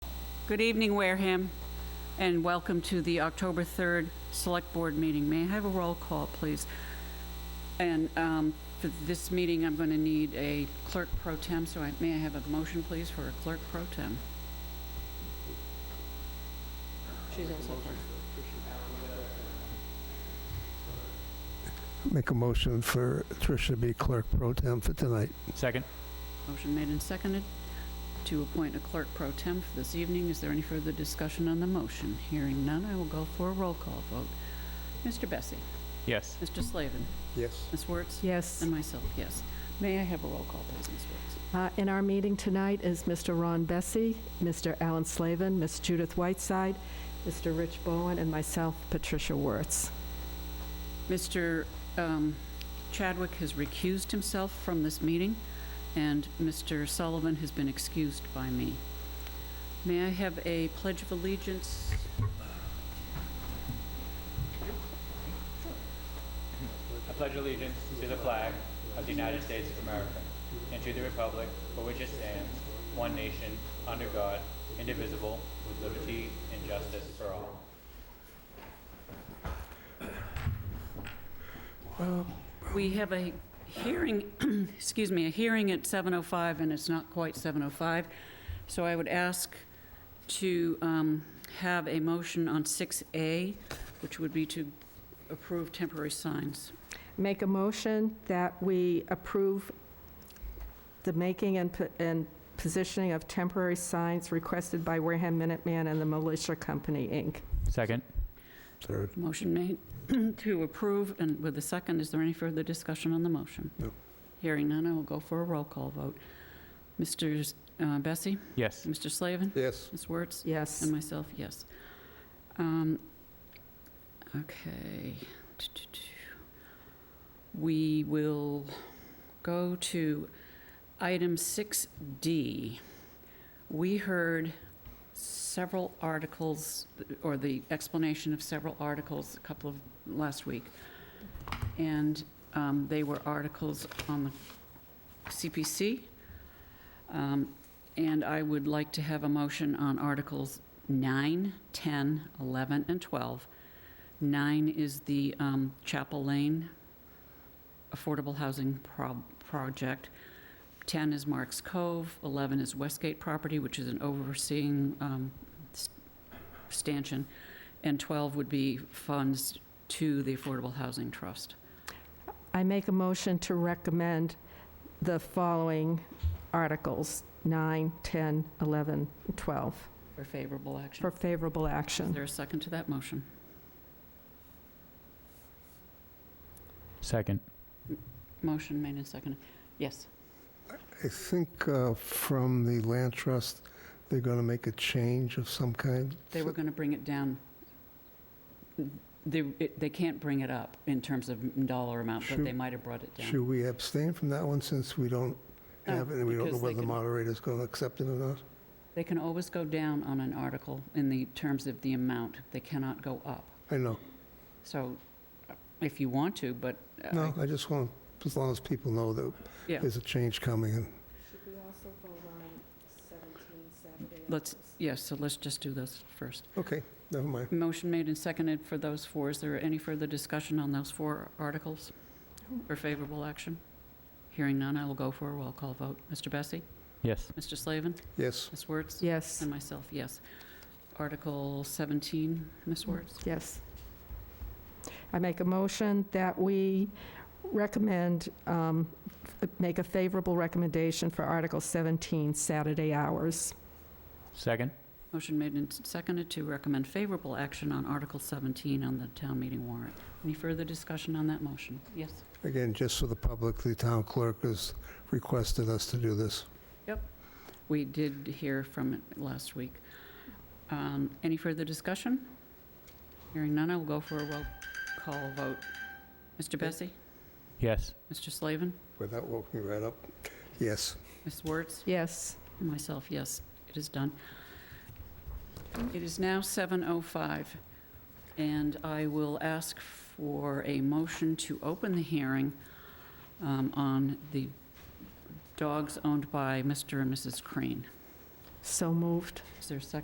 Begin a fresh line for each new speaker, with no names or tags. Good evening, Wareham, and welcome to the October 3rd Select Board meeting. May I have a roll call, please? And um, for this meeting, I'm going to need a clerk pro tem, so I- may I have a motion, please, for a clerk pro tem? She's also clerk.
Make a motion for Tricia to be clerk pro tem for tonight.
Second.
Motion made and seconded to appoint a clerk pro tem for this evening. Is there any further discussion on the motion? Hearing none, I will go for a roll call vote. Mr. Bessie?
Yes.
Mr. Slavin?
Yes.
Ms. Wertz?
Yes.
And myself, yes. May I have a roll call, please, Ms. Woods?
Uh, In our meeting tonight is Mr. Ron Bessie, Mr. Alan Slavin, Ms. Judith Whiteside, Mr. Rich Bowen, and myself, Patricia Wertz.
Mr. um, Chadwick has recused himself from this meeting, and Mr. Sullivan has been excused by me. May I have a pledge of allegiance?
I pledge allegiance to the flag of the United States of America and to the republic for which it stands, one nation, under God, indivisible, with liberty and justice for all.
We have a hearing, excuse me, a hearing at 7:05, and it's not quite 7:05, so I would ask to um, have a motion on 6A, which would be to approve temporary signs.
Make a motion that we approve the making and po- and positioning of temporary signs requested by Wareham Minuteman and the Militia Company, Inc.
Second.
Third.
Motion made to approve, and with a second, is there any further discussion on the motion?
No.
Hearing none, I will go for a roll call vote. Mr. uh, Bessie?
Yes.
Mr. Slavin?
Yes.
Ms. Wertz?
Yes.
And myself, yes. Um, Okay. We will go to item 6D. We heard several articles, or the explanation of several articles, a couple of, last week. And um, they were articles on the CPC. Um, and I would like to have a motion on Articles 9, 10, 11, and 12. 9 is the um, Chapel Lane Affordable Housing Prob- Project. 10 is Marks Cove. 11 is Westgate property, which is an overseeing um, s- stanchion. And 12 would be funds to the Affordable Housing Trust.
I make a motion to recommend the following articles, 9, 10, 11, and 12,
For favorable action.
for favorable
Is
action.
there a second to that motion?
Second.
Motion made and seconded. Yes.
I think uh, from the land trust, they're going to make a change of some kind.
They were going to bring it down. They, it- they can't bring it up in terms of dollar amount, but
Should-
they might have brought it down.
Should we abstain from that one since we don't
No,
have it and we don't know
because they
whether the
can-
moderator's going to accept it or not?
They can always go down on an article in the terms of the amount. They cannot go up.
I know.
So uh, if you want to, but. uh, I-
No, I just want, as long as people know that
Yeah.
there's a change coming and
Let's, yes, so let's just do those first.
Okay, never mind.
Motion made and seconded for those four. Is there any further discussion on those four articles for favorable action? Hearing none, I will go for a roll call vote. Mr. Bessie?
Yes.
Mr. Slavin?
Yes,
Ms. Wertz?
Yes,
And myself, yes. Article 17,
Mm.
Ms. Wertz?
yes. I make a motion that we recommend, um, f- make a favorable recommendation for Article 17, Saturday hours.
Second.
Motion made and seconded to recommend favorable action on Article 17 on the town meeting warrant. Any further discussion on that motion? Yes.
again, just for the public, the town clerk has requested us to do this.
We did hear from it last week. Um, Any further discussion? Hearing none, I will go for a roll call vote. Mr. Bessie?
Yes.
Mr. Slavin?
Without woken right up, yes.
Ms. Wertz?
Yes.
Myself, yes, it is done. It is now 7:05, and I will ask for a motion to open the hearing um, on the dogs owned by Mr. and Mrs. Crane.
So moved.
Is there a second?